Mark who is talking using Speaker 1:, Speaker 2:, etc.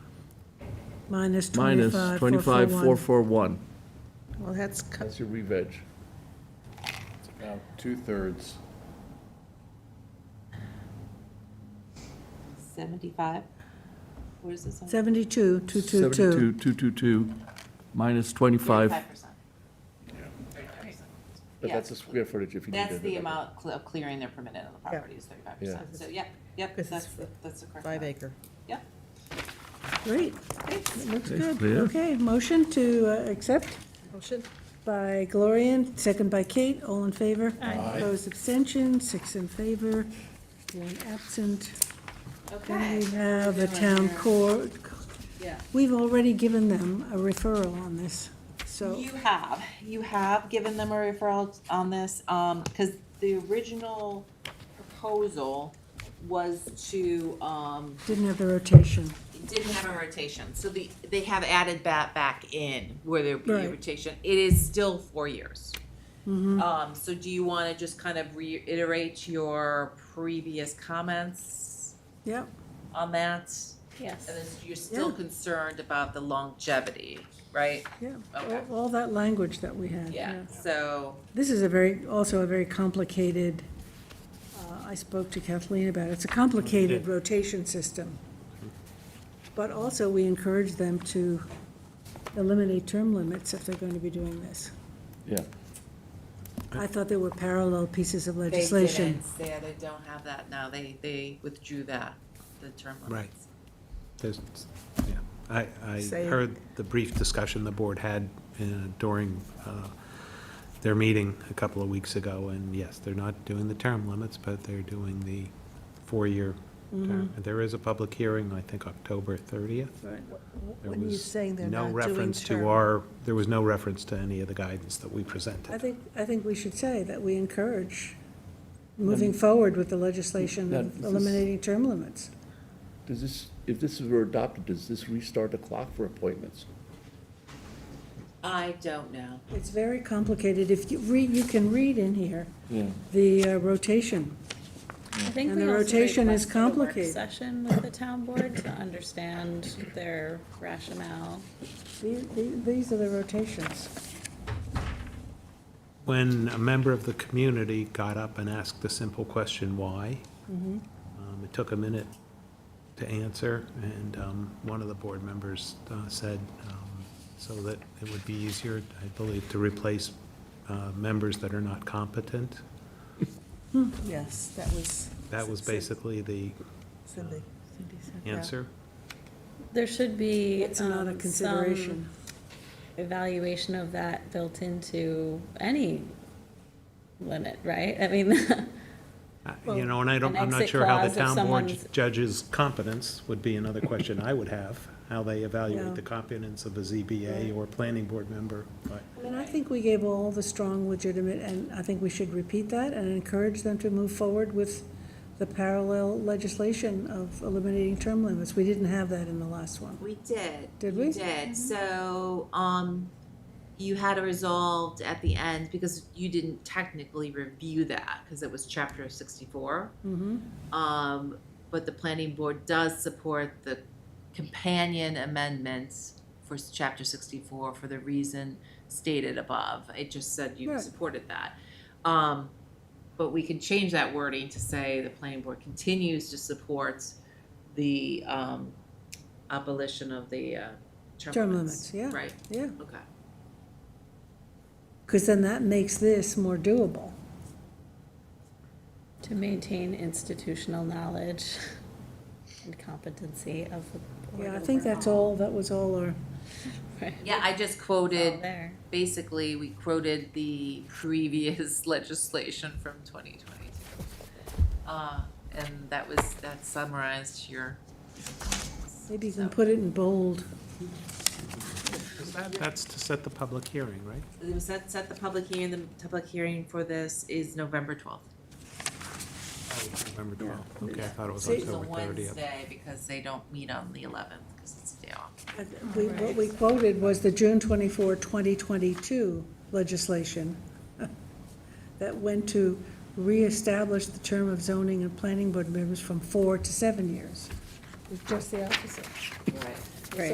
Speaker 1: Minus
Speaker 2: minus
Speaker 1: 25,
Speaker 2: 25,441.
Speaker 1: Well, that's, co-
Speaker 2: That's your re-veg.
Speaker 3: It's about two-thirds.
Speaker 4: 75? What is this? on?
Speaker 1: 72, 222.
Speaker 2: 72,222 minus 25,
Speaker 4: 35%.
Speaker 2: but that's the square footage if you need it.
Speaker 4: That's the amount cl- of clearing they're permitted on the property is 35%. So, yep, yep,
Speaker 5: Because it's
Speaker 4: that's, the- that's the correct.
Speaker 5: Five
Speaker 4: amount.
Speaker 5: acre.
Speaker 4: Yep.
Speaker 1: Great, It looks
Speaker 2: Thanks,
Speaker 1: good.
Speaker 2: Leah.
Speaker 1: Okay, motion to uh, accept
Speaker 5: Motion?
Speaker 1: by Gloria, second by Kate, all in favor? Aye. Opposed, abstention, six in favor, one absent. Then we
Speaker 4: Okay.
Speaker 1: have a
Speaker 4: Good one
Speaker 1: town
Speaker 4: here.
Speaker 1: court.
Speaker 4: Yeah.
Speaker 1: We've already given them a referral on this, so,
Speaker 4: You have, you have given them a referral on this, um, because the original proposal was to, um,
Speaker 1: didn't have the rotation.
Speaker 4: it didn't have a rotation, so the, they have added that back in where there would be a
Speaker 1: Right. Mm-hmm.
Speaker 4: rotation. It is still four years. Um, so do you wanna just kind of reiterate your previous comments
Speaker 1: Yep,
Speaker 4: on that?
Speaker 6: Yes.
Speaker 4: And then you're still
Speaker 1: Yeah.
Speaker 4: concerned about the longevity, right?
Speaker 1: yeah,
Speaker 4: Okay.
Speaker 1: all all that language that we had,
Speaker 4: Yeah,
Speaker 1: yeah.
Speaker 4: so,
Speaker 1: This is a very, also a very complicated, uh, I spoke to Kathleen about it, it's a complicated rotation system. But also, we encourage them to eliminate term limits if they're going to be doing this.
Speaker 2: Yeah.
Speaker 1: I thought there were parallel pieces of legislation.
Speaker 4: They didn't, they, they don't have that now, they, they withdrew that, the term
Speaker 7: Right.
Speaker 4: limits.
Speaker 7: There's, yeah, I, I
Speaker 5: Say it.
Speaker 7: heard the brief discussion the board had uh, during uh, their meeting a couple of weeks ago, and yes, they're not doing the term limits, but they're doing the four-year
Speaker 5: Mm-hmm.
Speaker 7: term. There is a public hearing, I think, October 30th. There
Speaker 5: When you
Speaker 7: was
Speaker 5: saying they're not doing
Speaker 7: No reference
Speaker 5: term.
Speaker 7: to our, there was no reference to any of the guidance that we
Speaker 1: I
Speaker 7: presented.
Speaker 1: think, I think we should say that we encourage moving forward with the legislation
Speaker 2: That- this
Speaker 1: of
Speaker 2: is-
Speaker 1: eliminating term limits.
Speaker 2: Does this, if this were adopted, does this restart the clock for appointments?
Speaker 4: I don't know.
Speaker 1: It's very complicated. If you read, you can read in here
Speaker 2: Yeah.
Speaker 1: the uh, rotation.
Speaker 6: I think
Speaker 1: And
Speaker 6: we
Speaker 1: the
Speaker 6: also
Speaker 1: rotation is
Speaker 6: requested a work
Speaker 1: complicated.
Speaker 6: Session with the town board to understand their rationale.
Speaker 1: These- These these are the rotations.
Speaker 7: When a member of the community got up and asked the simple question, why?
Speaker 6: Mm-hmm.
Speaker 7: Um, It took a minute to answer, and um, one of the board members uh, said, um, so that it would be easier, I believe, to replace uh, members that are not competent.
Speaker 5: Yes, that was.
Speaker 7: That was basically the
Speaker 5: Cindy. Cindy said that.
Speaker 7: answer.
Speaker 6: There should be
Speaker 1: It's another
Speaker 6: um,
Speaker 1: consideration.
Speaker 6: some evaluation of that built into any limit, right? I mean,
Speaker 7: Uh, You know, and I don't,
Speaker 6: Well,
Speaker 7: I'm
Speaker 6: an
Speaker 7: not
Speaker 6: exit
Speaker 7: sure how
Speaker 6: clause
Speaker 7: the
Speaker 6: if
Speaker 7: town board
Speaker 6: someone's-
Speaker 7: judges competence would be another question I would have, how they
Speaker 1: Yeah.
Speaker 7: evaluate the competence of a ZBA or planning board member, but.
Speaker 1: I mean, I think we gave all the strong legitimate, and I think we should repeat that and encourage them to move forward with the parallel legislation of eliminating term limits. We didn't have that in the last one.
Speaker 4: We did.
Speaker 1: Did
Speaker 4: You
Speaker 1: we?
Speaker 4: did. So, um, you had it resolved at the end because you didn't technically review that because it was chapter sixty-four.
Speaker 1: Mm-hmm.
Speaker 4: Um, but the planning board does support the companion amendments for s- chapter sixty-four for the reason stated above. It just said you
Speaker 1: Right.
Speaker 4: supported that. Um, but we can change that wording to say the planning board continues to support the, um, abolition of the, uh, term
Speaker 1: Term
Speaker 4: limits.
Speaker 1: limits, yeah.
Speaker 4: Right,
Speaker 1: Yeah,
Speaker 4: okay.
Speaker 1: because then that makes this more doable.
Speaker 6: to maintain institutional knowledge and competency of the board.
Speaker 1: Yeah, I think that's
Speaker 6: overall,
Speaker 1: all, that was all our,
Speaker 6: right?
Speaker 4: Yeah, I just
Speaker 6: All
Speaker 4: quoted,
Speaker 6: there.
Speaker 4: basically, we quoted the previous legislation from twenty twenty-two. Uh, and that was, that summarized your.
Speaker 1: maybe you can
Speaker 4: So-
Speaker 1: put it in bold.
Speaker 7: That's to set the public hearing, right?
Speaker 4: It was set, set the public hearing, the public hearing for this is November twelfth.
Speaker 7: November 12th. Okay, I thought it was
Speaker 1: See-
Speaker 4: It's a
Speaker 7: October 30th.
Speaker 4: Wednesday because they don't meet on the eleventh, because it's a day off.
Speaker 1: Uh, We, what we quoted was the June 24, 2022 legislation that went to reestablish the term of zoning and planning board members from four to seven years. It's just the opposite.
Speaker 4: Right.